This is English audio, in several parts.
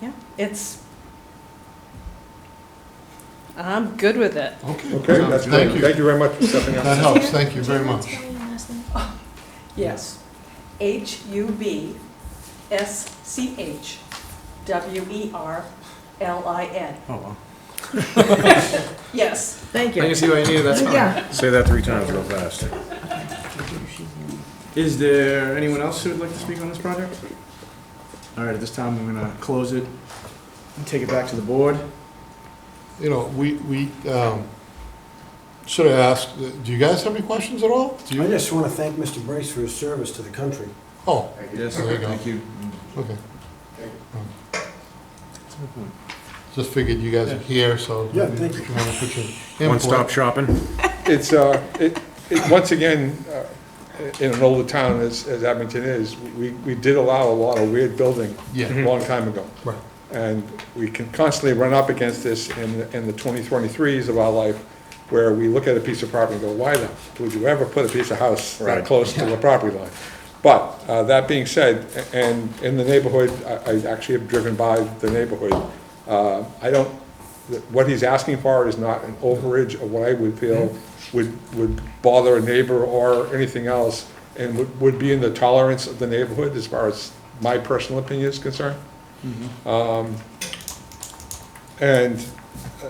Yeah, it's, I'm good with it. Okay. Okay, that's great. Thank you. Thank you very much for stepping That up. helps, thank you very much. Yes. H U B S C H W E R L I N. Oh, wow. Yes. Thank I can you. see why you need that. Yeah. Say that three times real fast. Is there anyone else who would like to speak on this project? All right, at this time, I'm gonna close it and take it back to the board. You know, we, we um, should have asked, uh, do you guys have any questions at all? Do I you? just want to thank Mr. Brace for his service to the country. Oh, Yes, There you go. thank you. okay. Just figured you guys are here, so. Yeah, thank if you. want to put your input- One-stop shopping? It's, uh, it, it, once again, uh, in an older town as, as Abington is, we, we did allow a lot of weird building Yeah. a long time ago. Right. And we can constantly run up against this in, the- in the 2023s of our life, where we look at a piece of property and go, why the, would you ever put a piece of house that Right. close to the property line? But, uh, that being said, a- and in the neighborhood, I, I actually have driven by the neighborhood, uh, I don't, what he's asking for is not an overage of what I would feel would, would bother a neighbor or anything else, and would, would be in the tolerance of the neighborhood as far as my personal opinion is concerned. Mm-hmm. And uh,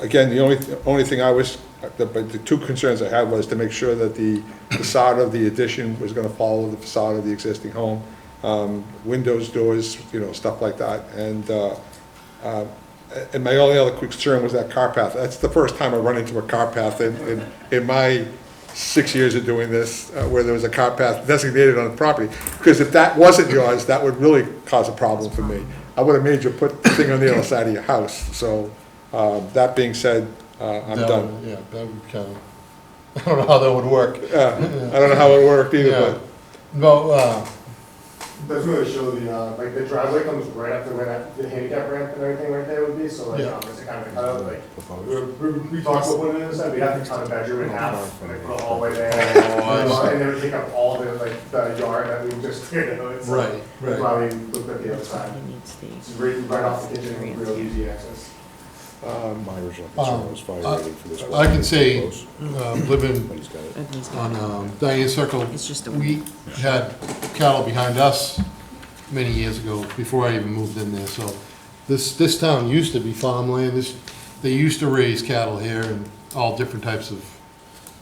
again, the only, only thing I was, the- but the two concerns I had was to make sure that the facade of the addition was gonna follow the facade of the existing home. Um, Windows, doors, you know, stuff like that. And, uh, uh, and my only other quick concern was that car path. That's the first time I run into a car path in, in, in my six years of doing this, uh, where there was a car path designated on the property. Because if that wasn't yours, that would really cause a problem for me. I would have made you put the thing on the other side of your house. So, um, that being said, uh, I'm That done. would- Yeah, that would kind of, I don't know how that would work. Uh, I don't know how it worked Yeah. either, No, uh, That's where they show the, uh, like, the driveway comes right after where that, the handicap ramp and everything right there would be, so like, Yeah. um, it's a kind of a cutout, like, we, we- we talked about putting it inside, we have to cut a bedroom in half, and like, put a hallway there. Oh, And then we take up all the, like, the yard that we just cleared out, it's like, right, that's why right. we looked at the other side. It's right, right off the kitchen, real easy access. but, um, My original Um, concern was fire rating for this. I can say, Close, uh, living But he's got it. Oh, on um, Diane Circle, It's just a we had cattle behind us many years ago, before I even moved in there, so this, this town used to be farmland, this, they used to raise cattle here and all different types of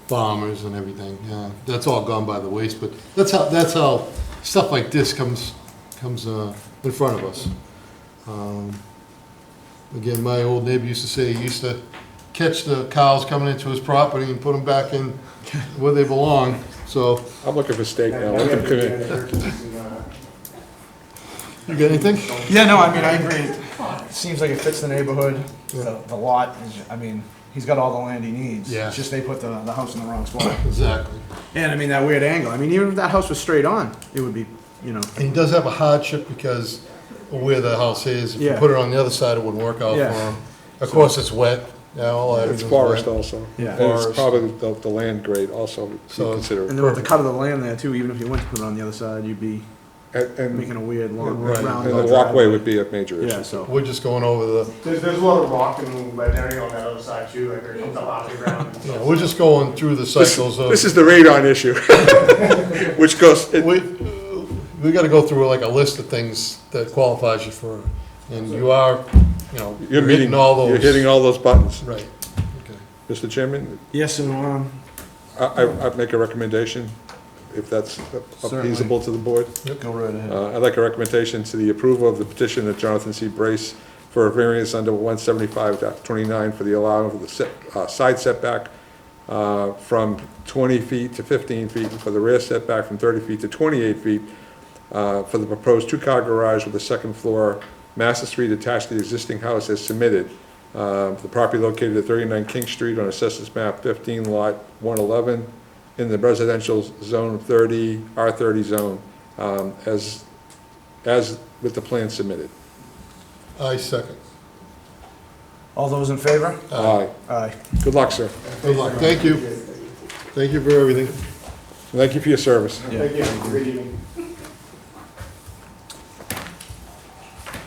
farmers and everything, yeah, that's all gone by the waste, but that's how, that's how stuff like this comes, comes, uh, in front of us. Um, Again, my old neighbor used to say he used to catch the cows coming into his property and put them back in where they belong, so, I'm looking for steak now. And Let we them have come the- in. the turkeys and, uh, you got anything? Yeah, no, I mean, I agree. It Seems like it fits the neighborhood, the the lot, is- I mean, he's got all the land he needs. Yeah. It's just they put the, the house in the wrong spot. Exactly. And I mean, that weird angle, I mean, even if that house was straight on, it would be, you know, And he does have a hardship because of where the house is, if you Yeah. put it on the other side, it wouldn't work out for Yeah. him. Of course, it's wet, yeah, all that. It's is forest wet. also. Yeah. And it's Forest. probably the, the land grade also, to So- consider. and then with the cut of the land there too, even if you went to put it on the other side, you'd be And, and making a weird long Right. round. and the walkway would be a major issue. Yeah, so. We're just going over the, There's, there's a lot of rock and lead area on that other side too, like, there comes up out of the ground. and no, stuff. we're just going through the This- cycles of, This is the radon issue, which goes, it- we, we gotta go through like a list of things that qualifies you for, and you are, you know, you're meeting, hitting all those. you're hitting all those buttons. Right, okay. Mr. Chairman, Yes, so, um, I, I- I'd make a recommendation, if that's appeasable to the board. go right ahead. Uh, I'd like a recommendation to the approval of the petition of Jonathan C. Brace for a variance under 175.29 for the allowance of the set- uh, side setback uh, from 20 feet to 15 feet, and for the rear setback from 30 feet to 28 feet, uh, for the proposed two-car garage with a second floor, Master Street attached to the existing house as submitted. Uh, The property located at 39 King Street on Assessors Map 15, Lot 111, in the residential zone 30, R30 zone, um, as, as with the plan submitted. I second. All those in favor? Aye. Aye. Good luck, sir. Good luck, thank you, thank you for everything. Thank you for your service. Yeah. Thank you, good evening.